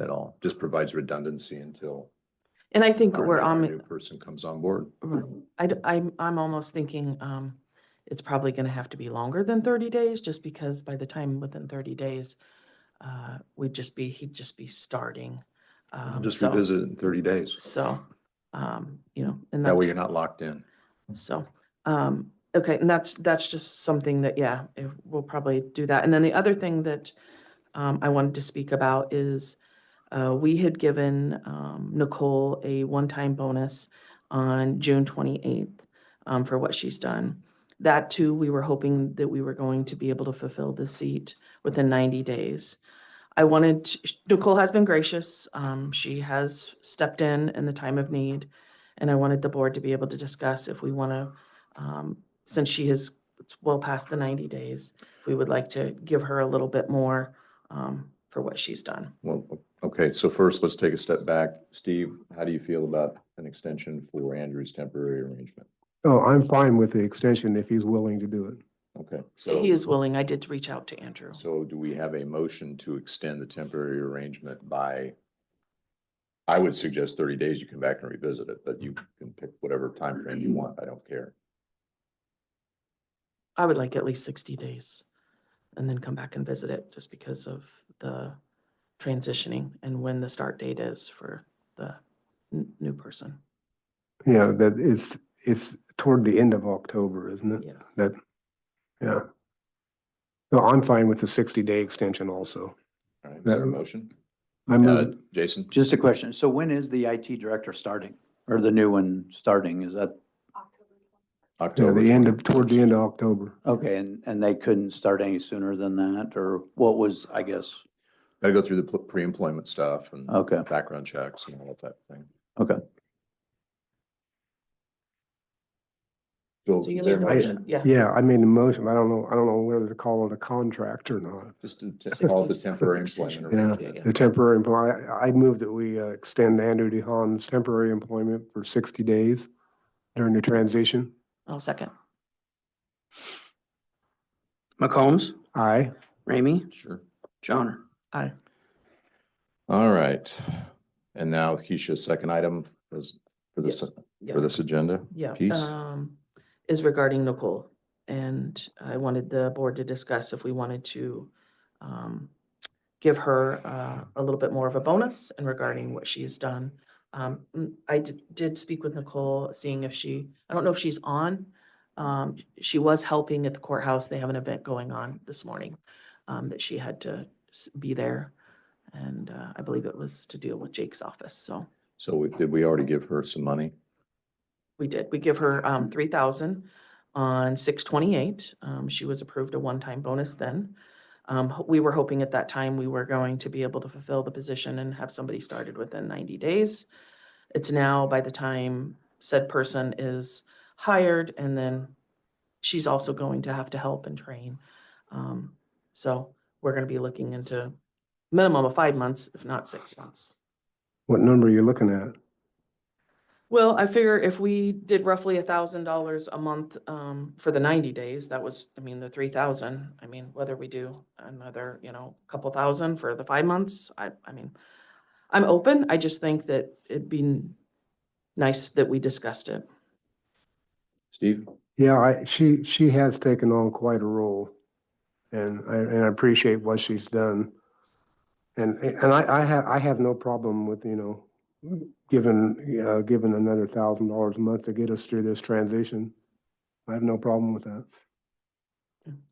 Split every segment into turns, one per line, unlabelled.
at all. Just provides redundancy until
And I think
our
we're
our
on,
new person comes on board.
Right. I, am I'm almost thinking, um, it's probably gonna have to be longer than thirty days, just because by the time within thirty days, uh, we'd just be, he'd just be starting.
We'll
um,
Just
so-
revisit it in thirty days.
So, um, you know, and
That
that's,
way you're not locked in.
so, um, okay, and that's, that's just something that, yeah, eh, we'll probably do that. And then the other thing that, um, I wanted to speak about is, uh, we had given, um, Nicole a one-time bonus on June twenty-eighth, um, for what she's done. That too, we were hoping that we were going to be able to fulfill the seat within ninety days. I wanted, to- sh- Nicole has been gracious. Um, she has stepped in in the time of need. And I wanted the board to be able to discuss if we want to, um, since she has it's well past the ninety days, if we would like to give her a little bit more, um, for what she's done.
Well, okay, so first, let's take a step back. Steve, how do you feel about an extension for Andrew's temporary arrangement?
Oh, I'm fine with the extension if he's willing to do it.
Okay, so.
He is willing. I did reach out to Andrew.
So do we have a motion to extend the temporary arrangement by? I would suggest thirty days. You come back and revisit it, but you can pick whatever time frame you want. I don't care.
I would like at least sixty days and then come back and visit it just because of the transitioning and when the start date is for the n- new person.
Yeah, that it's, it's toward the end of October,
Mm.
isn't it?
Yes.
That, yeah. So I'm fine with the sixty day extension also.
All right, is there a
That-
motion?
I
Uh,
move,
Jason?
Just a question. So when is the IT director starting or the new one starting? Is that,
yeah,
October
the end of, toward the end of October.
okay, and, and they couldn't start any sooner than that or what was, I guess?
Gotta go through the pl- pre-employment stuff and
Okay,
background checks and all that type of thing.
Okay.
So
So you
is there
need
a
a
motion?
motion, yeah.
Yeah, I made a motion. I don't know, I don't know whether to call it a contract or not.
Just to to
Six
call the
months.
temporary
Extension.
employment.
Yeah,
arrangement.
the temporary employment, I move that we uh, extend Andrew DeHaan's temporary employment for sixty days during the transition.
I'll second.
McCombs,
Aye.
Ramey,
Sure.
Johnner.
All right. And now Keisha's second item is for this,
Yeah.
for this agenda.
Yeah,
piece?
um, is regarding Nicole. And I wanted the board to discuss if we wanted to, um, give her, uh, a little bit more of a bonus and regarding what she has done. Um, mm, I did, did speak with Nicole, seeing if she, I don't know if she's on. Um, she was helping at the courthouse. They have an event going on this morning, um, that she had to s- be there. And, uh, I believe it was to deal with Jake's office, so.
So we- did we already give her some money?
We did. We give her um three thousand on six twenty-eight. Um, she was approved a one-time bonus then. Um, ho- we were hoping at that time we were going to be able to fulfill the position and have somebody started within ninety days. It's now by the time said person is hired and then she's also going to have to help and train. Um, so we're gonna be looking into minimum of five months, if not six months.
What number are you looking at?
Well, I figure if we did roughly a thousand dollars a month, um, for the ninety days, that was, I mean, the three thousand, I mean, whether we do another, you know, couple thousand for the five months, I, I mean, I'm open, I just think that it'd be n- nice that we discussed it.
Steve?
Yeah, I, she, she has taken on quite a role. And I, and I appreciate what she's done. And, and I, I have, I have no problem with, you know, giving, uh, giving another thousand dollars a month to get us through this transition. I have no problem with that.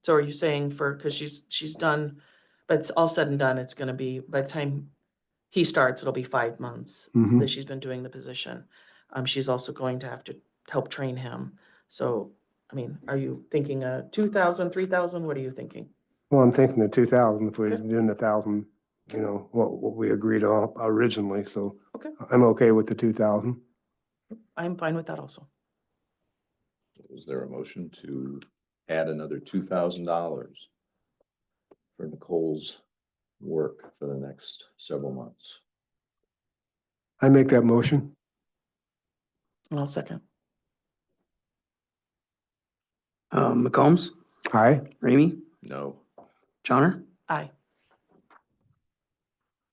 So are you saying for, cause she's, she's done, but it's all said and done, it's gonna be, by the time he starts, it'll be five months.
Mhm.
that she's been doing the position. Um, she's also going to have to help train him. So, I mean, are you thinking a two thousand, three thousand? What are you thinking?
Well, I'm thinking the two thousand, if we're
Okay.
doing the thousand, you know, what, what we agreed on originally, so.
Okay.
I'm okay with the two thousand.
I'm fine with that also.
Is there a motion to add another two thousand dollars for Nicole's work for the next several months?
I make that motion.
And I'll second.
Um, McCombs,
Aye.
Um, Ramey,
No.
Johnner.
Aye.